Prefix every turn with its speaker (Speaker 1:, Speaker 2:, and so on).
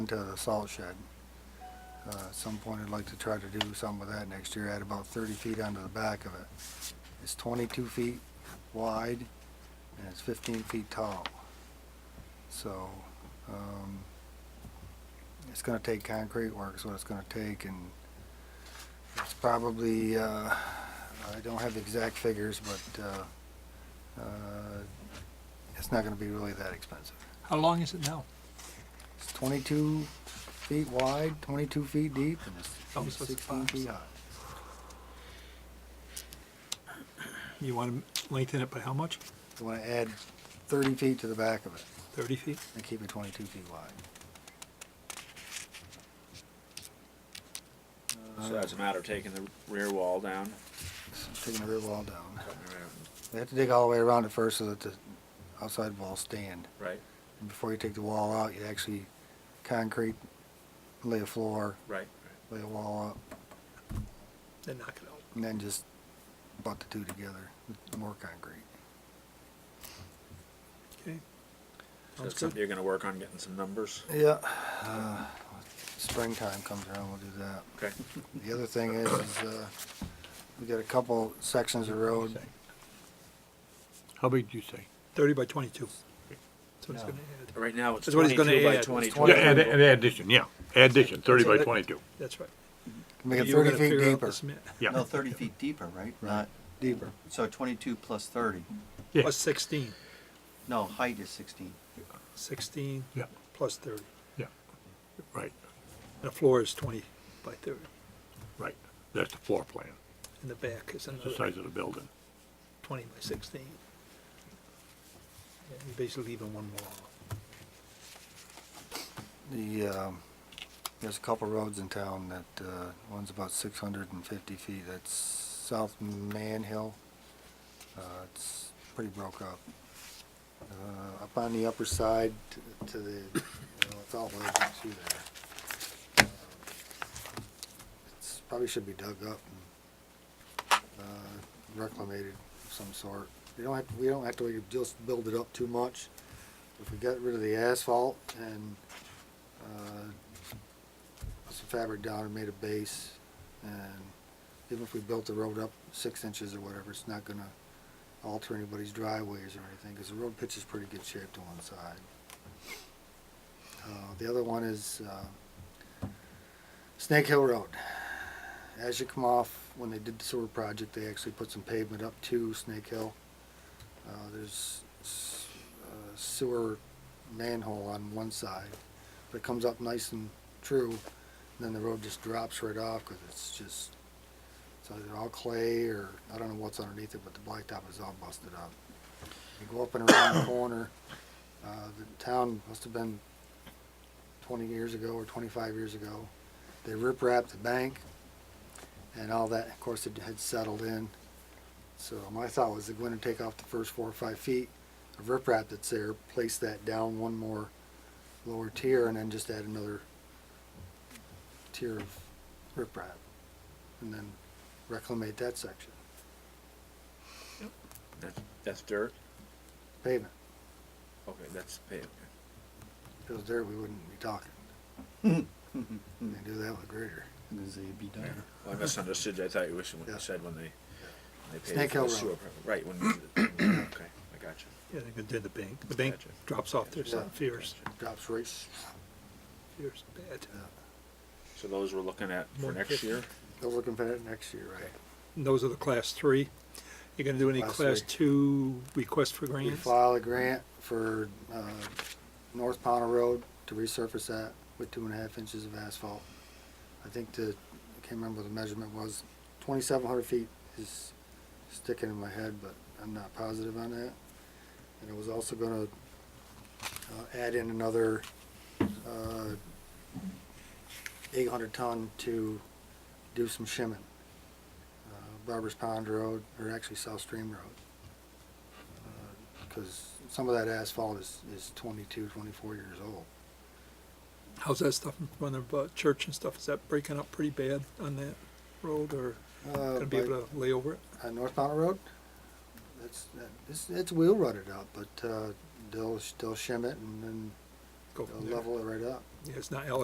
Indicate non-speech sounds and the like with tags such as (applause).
Speaker 1: to the salt shed. Uh, At some point, I'd like to try to do something with that next year, add about 30 feet onto the back of it. It's 22 feet wide, and it's 15 feet tall. So, um, it's gonna take concrete work, is what it's gonna take, and it's probably, uh, I don't have the exact figures, but uh, uh, it's not gonna be really that expensive.
Speaker 2: How long is it now?
Speaker 1: It's 22 feet wide, 22 feet deep, and
Speaker 2: Oh,
Speaker 1: it's
Speaker 2: so it's
Speaker 1: 16 feet high.
Speaker 2: You want to lengthen it by how much?
Speaker 1: I want to add 30 feet to the back of it
Speaker 2: 30 feet?
Speaker 1: and keep it 22 feet wide.
Speaker 3: So that's a matter of taking the rear wall down.
Speaker 1: Taking the rear wall down. They have to dig all the way around it first so that the outside walls stand.
Speaker 3: Right,
Speaker 1: And before you take the wall out, you actually concrete, lay a floor,
Speaker 3: right.
Speaker 1: lay a wall up,
Speaker 2: Then knock it out.
Speaker 1: and then just butt the two together with more concrete.
Speaker 2: Okay. Sounds
Speaker 3: So it's
Speaker 2: good.
Speaker 3: something you're gonna work on getting some numbers.
Speaker 1: Yeah, uh, springtime comes around, we'll do that.
Speaker 3: Okay.
Speaker 1: The other thing is, is, uh, we got a couple sections of road,
Speaker 4: How big do you say?
Speaker 2: 30 by 22. That's what it's
Speaker 1: No.
Speaker 2: going to add.
Speaker 3: Right now, it's
Speaker 2: That's what he's gonna
Speaker 3: twenty-two by
Speaker 2: add. It's
Speaker 3: twenty-two.
Speaker 1: Yeah, add
Speaker 4: an addition, yeah, addition, thirty by
Speaker 2: So that-
Speaker 4: twenty-two.
Speaker 2: That's right.
Speaker 1: make it
Speaker 2: You were
Speaker 1: thirty
Speaker 2: gonna
Speaker 1: feet
Speaker 2: figure out
Speaker 1: deeper,
Speaker 2: this minute.
Speaker 4: Yeah.
Speaker 5: No, thirty feet deeper, right? Not,
Speaker 1: deeper.
Speaker 5: so twenty-two plus thirty.
Speaker 4: Yeah.
Speaker 2: Plus 16.
Speaker 5: No, height is sixteen.
Speaker 2: 16
Speaker 4: Yeah,
Speaker 2: plus 30.
Speaker 4: yeah, right,
Speaker 2: And the floor is 20 by 30.
Speaker 4: right, that's the floor plan,
Speaker 2: And the back is
Speaker 4: that's the
Speaker 2: another
Speaker 4: size of the building.
Speaker 2: 20 by 16. Yeah, You're basically leaving one wall.
Speaker 1: The, um, there's a couple roads in town that, uh, one's about six hundred and fifty feet, that's South Manhill. Uh, it's pretty broke up. Uh, up on the upper side t- to the, you know, it's all the way down through there. It's, probably should be dug up and, uh, reclamated of some sort. We don't have, we don't have to just build it up too much. If we got rid of the asphalt and uh, put some fabric down and made a base, and even if we built the road up six inches or whatever, it's not gonna alter anybody's driveways or anything, because the road pitch is pretty good shape to one side. Uh, the other one is, uh, Snake Hill Road. As you come off, when they did the sewer project, they actually put some pavement up to Snake Hill. Uh, there's s- uh, sewer manhole on one side, but it comes up nice and true, and then the road just drops right off because it's just, it's either all clay or, I don't know what's underneath it, but the blacktop is all busted up. You go up and around the corner, uh, the town must have been twenty years ago or twenty-five years ago. They riprap the bank and all that, of course, it had settled in. So my thought was they're going to take off the first four or five feet of riprap that's there, place that down one more lower tier and then just add another tier of riprap and then reclimate that section,
Speaker 3: That's- That's dirt?
Speaker 1: pavement.
Speaker 3: Okay, that's paved.
Speaker 1: If it was dirt, we wouldn't be talking. They do that with grader.
Speaker 3: Well, I misunderstood. I thought you were, when
Speaker 1: Yeah.
Speaker 3: you said when they, they
Speaker 1: Snake
Speaker 3: paved
Speaker 1: Hill
Speaker 3: the
Speaker 1: Road.
Speaker 3: sewer. pro- Right, when, (coughs) okay, I got you.
Speaker 2: Yeah, they're going to do the bank. The bank
Speaker 3: Gotcha.
Speaker 2: drops off there,
Speaker 1: Yeah.
Speaker 2: something fierce,
Speaker 1: Drops rates.
Speaker 2: fierce, bad.
Speaker 3: So those we're looking at for
Speaker 2: One
Speaker 3: next
Speaker 2: fifty.
Speaker 3: year?
Speaker 1: They're looking for that next year, right?
Speaker 2: And those are the class three. You're gonna do any
Speaker 1: Class
Speaker 2: class
Speaker 1: three.
Speaker 2: two request for
Speaker 1: We
Speaker 2: grants?
Speaker 1: file a grant for, uh, North Powder Road to resurface that with two and a half inches of asphalt. I think the, I can't remember what the measurement was, twenty-seven hundred feet is sticking in my head, but I'm not positive on that. And it was also gonna, uh, add in another, uh, eight hundred ton to do some shimming. Uh, Barber's Pond Road, or actually South Stream Road because some of that asphalt is, is 22, 24 years old.
Speaker 2: How's that stuff in front of uh, church and stuff? Is that breaking up pretty bad on that road or
Speaker 1: Uh,
Speaker 2: gonna be
Speaker 1: by-
Speaker 2: able to lay over it?
Speaker 1: on North Mountain Road, that's, that- it's, it's wheel rutted up, but uh, they'll, they'll shim it and then
Speaker 2: Go from
Speaker 1: they'll
Speaker 2: there.
Speaker 1: level it right up.
Speaker 2: Yeah, it's not